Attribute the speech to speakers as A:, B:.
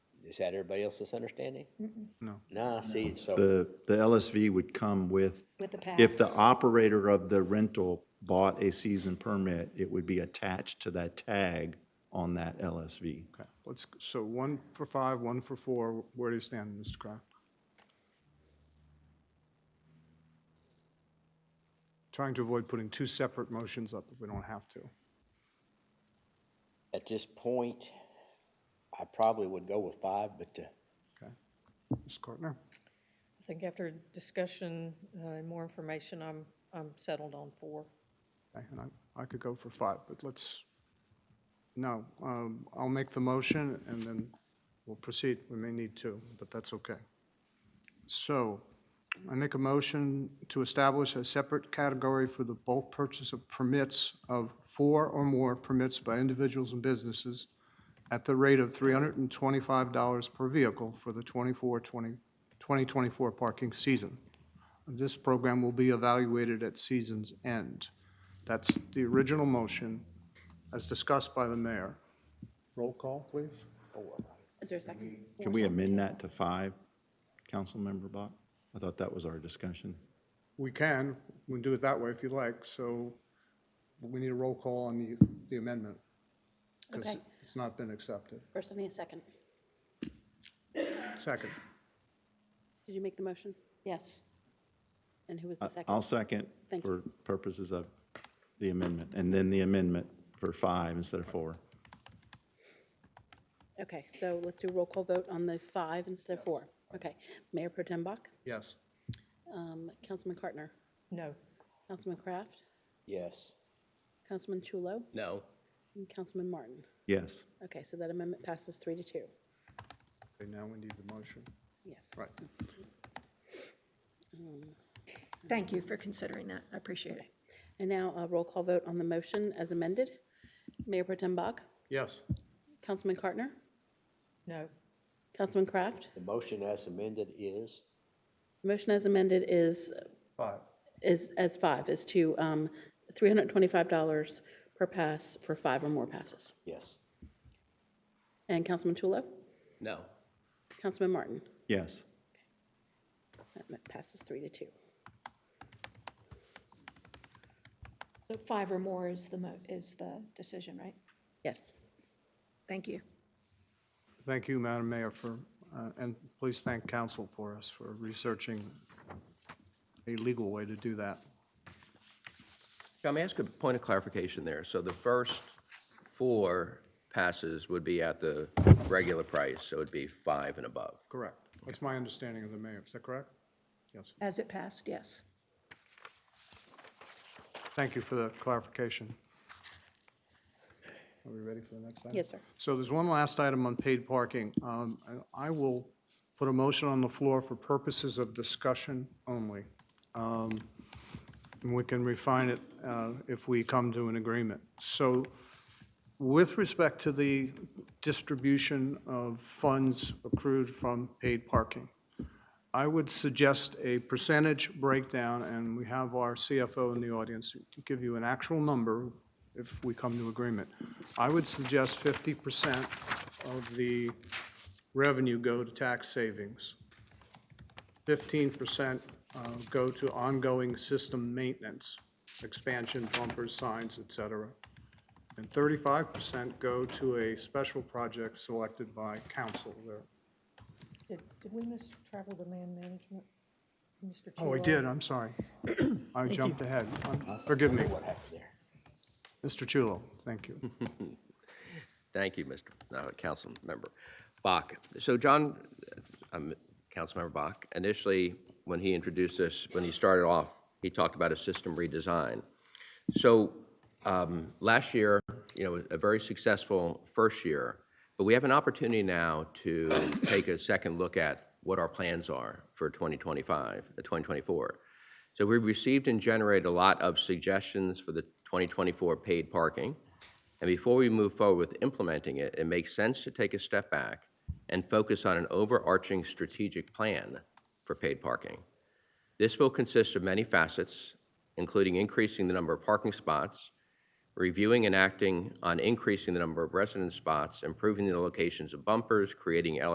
A: Is that everybody else's understanding?
B: No.
A: Nah, see, so,
C: The, the LSV would come with,
D: With the pass.
C: if the operator of the rental bought a season permit, it would be attached to that tag on that LSV.
B: Okay, let's, so one for five, one for four, where do you stand, Mr. Kraft? Trying to avoid putting two separate motions up if we don't have to.
A: at this point, I probably would go with five, but, uh,
B: Okay. Ms. Cortner?
E: I think after discussion uh, and more information, I'm, I'm settled on four.
B: Okay, and I, I could go for five, but let's, no, um, I'll make the motion and then we'll proceed. We may need to, but that's okay. So I make a motion to establish a separate category for the bulk purchase of permits of four or more permits by individuals and businesses at the rate of $325 per vehicle for the 24, 20 2024 parking season. This program will be evaluated at season's end. That's the original motion as discussed by the mayor. Roll call, please.
D: Is there a second?
C: Can we amend that to five, Councilmember Bach? I thought that was our discussion.
B: We can, we can do it that way if you like, so we need a roll call on the, the amendment. 'cause
D: Okay.
B: It's not been accepted.
D: First, I need a second.
B: Second,
F: Did you make the motion?
D: Yes.
F: And who was
C: I-
F: the second?
C: Uh, I'll second
F: Thank
C: for purposes of the amendment, and then the amendment for five instead of four.
F: Okay, so let's do a roll call vote on the five instead of four. Okay. Mayor Pro Tem Bach,
B: yes.
F: um, Councilman Cartner,
E: No,
F: Councilman Kraft,
A: yes.
F: Councilman Chulo,
A: No.
F: and Councilman Martin.
C: Yes.
F: Okay, so that amendment passes three to two.
B: Okay, now we need the motion.
F: Yes.
B: Right,
G: Thank you for considering that. I appreciate it.
F: And now a roll call vote on the motion as amended. Mayor Pro Tem Bach,
B: yes.
F: Councilman Cartner,
E: no,
F: Councilman Kraft.
A: The motion as amended is,
F: Motion as amended is
B: Five.
F: is, as five, is to um, $325 per pass for five or more passes.
A: yes.
F: And Councilman Chulo?
A: No.
F: Councilman Martin?
C: Yes.
F: That ma- passes three to two.
G: So five or more is the mo, is the decision, right?
F: Yes.
G: Thank you.
B: Thank you, Madam Mayor, for, uh, and please thank council for us for researching a legal way to do that.
H: Can I ask a point of clarification there? So the first four passes would be at the regular price, so it'd be five and above.
B: Correct. That's my understanding of the mayor. Is that correct? Yes.
G: As it passed, yes.
B: Thank you for the clarification. Are we ready for the next item?
F: Yes, sir.
B: So there's one last item on paid parking. Um, I I will put a motion on the floor for purposes of discussion only. Um, And we can refine it uh, if we come to an agreement. So with respect to the distribution of funds accrued from paid parking, I would suggest a percentage breakdown, and we have our CFO in the audience to give you an actual number if we come to agreement. I would suggest fifty percent of the revenue go to tax savings. Fifteen percent uh, go to ongoing system maintenance, expansion, bumpers, signs, et cetera. And thirty-five percent go to a special project selected by council there.
E: did, did we miss travel demand management? Mr.
B: Oh, I
E: Chulo?
B: did, I'm sorry. I jumped ahead. I'm- Forgive me.
A: What happened there?
B: Mr. Chulo, thank you.
H: Thank you, Mr. uh, Councilmember Bach. So John, um, Councilmember Bach, initially, when he introduced this, when he started off, he talked about a system redesign. So um, last year, you know, a very successful first year, but we have an opportunity now to take a second look at what our plans are for 2025, uh, 2024. So we received and generated a lot of suggestions for the 2024 paid parking. And before we move forward with implementing it, it makes sense to take a step back and focus on an overarching strategic plan for paid parking. This will consist of many facets, including increasing the number of parking spots, reviewing and acting on increasing the number of resident spots, improving the locations of bumpers, creating